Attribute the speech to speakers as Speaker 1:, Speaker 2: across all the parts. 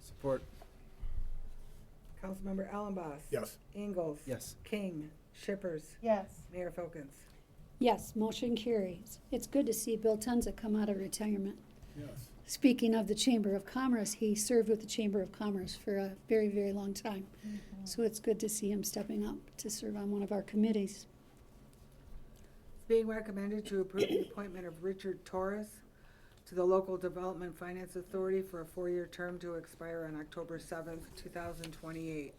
Speaker 1: Support.
Speaker 2: Councilmember Allenboss?
Speaker 3: Yes.
Speaker 2: Ingalls?
Speaker 1: Yes.
Speaker 2: King? Shippers?
Speaker 4: yes,
Speaker 2: Mayor Folkins?
Speaker 5: Yes, motion carries. It's good to see Bill Tenza come out of retirement.
Speaker 3: Yes.
Speaker 5: Speaking of the Chamber of Commerce, he served with the Chamber of Commerce for a very, very long time. So it's good to see him stepping up to serve on one of our committees.
Speaker 2: It's being recommended to approve the appointment of Richard Torres to the Local Development Finance Authority for a four-year term to expire on October seventh, two thousand twenty-eight.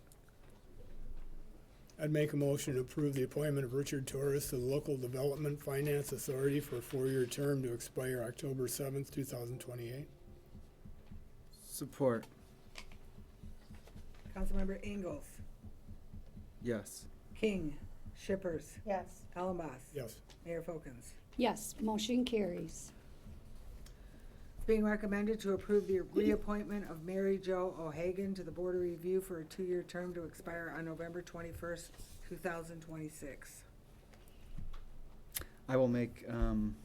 Speaker 3: I'd make a motion to approve the appointment of Richard Torres to the Local Development Finance Authority for a four-year term to expire October seventh, two thousand twenty-eight.
Speaker 1: Support.
Speaker 2: Councilmember Ingalls?
Speaker 1: Yes.
Speaker 2: King? Shippers?
Speaker 4: yes.
Speaker 2: Allenboss?
Speaker 3: Yes.
Speaker 2: Mayor Folkins?
Speaker 5: Yes, motion carries.
Speaker 2: It's being recommended to approve the reappointment of Mary Jo O'Hagan to the Board of Review for a two-year term to expire on November twenty-first, two thousand twenty-six.
Speaker 1: I will make um,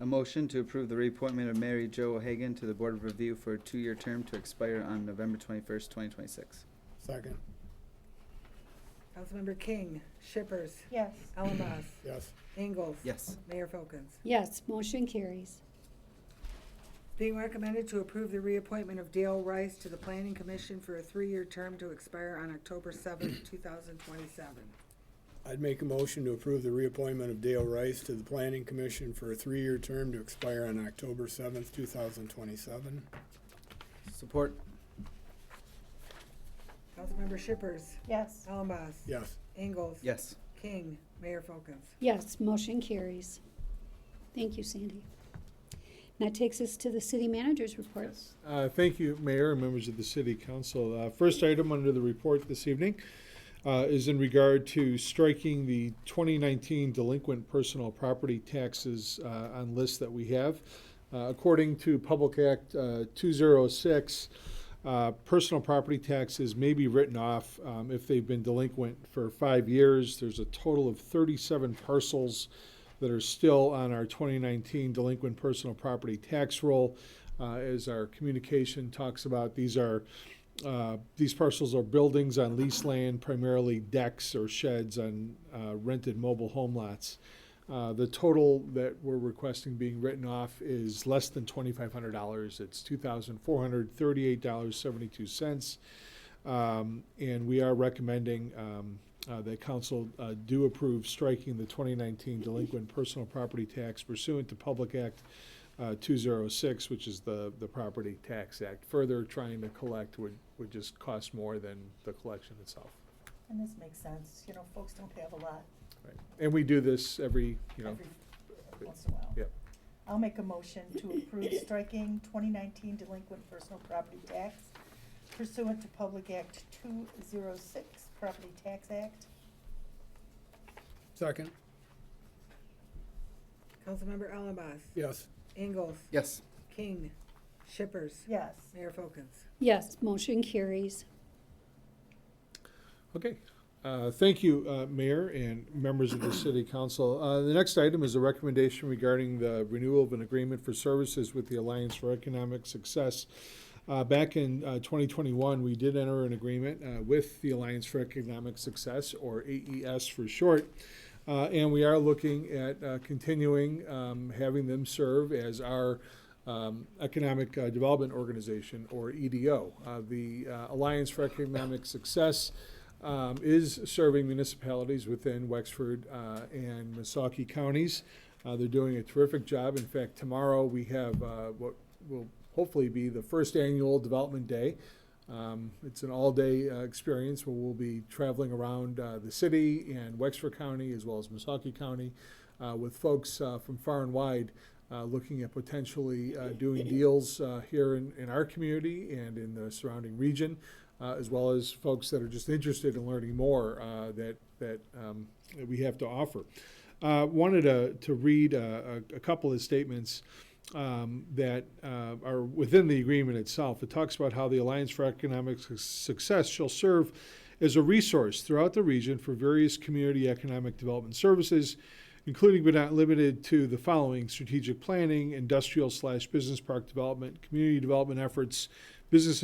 Speaker 1: a motion to approve the reappointment of Mary Jo O'Hagan to the Board of Review for a two-year term to expire on November twenty-first, twenty twenty-six.
Speaker 3: Second.
Speaker 2: Councilmember King? Shippers?
Speaker 4: Yes,
Speaker 2: Allenboss?
Speaker 3: Yes.
Speaker 2: Ingalls?
Speaker 1: Yes.
Speaker 2: Mayor Folkins?
Speaker 5: Yes, motion carries.
Speaker 2: Being recommended to approve the reappointment of Dale Rice to the Planning Commission for a three-year term to expire on October seventh, two thousand twenty-seven.
Speaker 3: I'd make a motion to approve the reappointment of Dale Rice to the Planning Commission for a three-year term to expire on October seventh, two thousand twenty-seven.
Speaker 1: Support.
Speaker 2: Councilmember Shippers,
Speaker 4: yes,
Speaker 2: Allenboss.
Speaker 3: Yes.
Speaker 2: Ingalls.
Speaker 1: Yes.
Speaker 2: King, Mayor Folkins.
Speaker 5: Yes, motion carries. Thank you, Sandy. And that takes us to the city manager's report.
Speaker 6: Uh, Thank you, Mayor and members of the City Council. Uh, First item under the report this evening uh, is in regard to striking the 2019 delinquent personal property taxes uh, on lists that we have. Uh, According to Public Act uh, 206, uh, personal property taxes may be written off um, if they've been delinquent for five years. There's a total of 37 parcels that are still on our 2019 delinquent personal property tax roll. Uh, As our communication talks about, these are, uh, these parcels are buildings on leased land, primarily decks or sheds on uh, rented mobile home lots. Uh, The total that we're requesting being written off is less than $2,500. It's $2,438.72. Um, And we are recommending um, uh, that council uh, do approve striking the 2019 delinquent personal property tax pursuant to Public Act uh, 206, which is the, the Property Tax Act. Further, trying to collect would, would just cost more than the collection itself.
Speaker 4: and this makes sense, you know, folks don't have a lot
Speaker 6: Right. And we do this every, you know,
Speaker 4: every, once in a while.
Speaker 6: Yep.
Speaker 4: I'll make a motion to approve striking twenty nineteen delinquent personal property tax pursuant to Public Act two zero six, Property Tax Act.
Speaker 3: Second.
Speaker 2: Councilmember Allenboss.
Speaker 3: Yes.
Speaker 2: Ingalls.
Speaker 1: Yes.
Speaker 2: King, Shippers,
Speaker 4: Yes,
Speaker 2: Mayor Folkins.
Speaker 5: Yes, motion carries.
Speaker 6: Okay. Uh, Thank you, uh, Mayor and members of the City Council. Uh, The next item is a recommendation regarding the renewal of an agreement for services with the Alliance for Economic Success. Uh, Back in uh, 2021, we did enter an agreement uh, with the Alliance for Economic Success, or AES for short, Uh, and we are looking at uh, continuing um, having them serve as our um, Economic uh, Development Organization, or EDO. Uh, The uh, Alliance for Economic Success um, is serving municipalities within Wexford uh, and Misaki counties. Uh, They're doing a terrific job. In fact, tomorrow, we have uh, what will hopefully be the first annual Development Day. Um, It's an all-day uh, experience where we'll be traveling around uh, the city and Wexford County, as well as Misaki County, uh, with folks uh, from far and wide uh, looking at potentially uh, doing deals uh, here in, in our community and in the surrounding region, uh, as well as folks that are just interested in learning more uh, that, that, um, that we have to offer. Uh, wanted to, to read uh, a, a couple of statements um, that uh, are within the agreement itself. It talks about how the Alliance for Economic Suc- Success shall serve as a resource throughout the region for various community economic development services, including but not limited to the following strategic planning, industrial slash business park development, community development efforts, business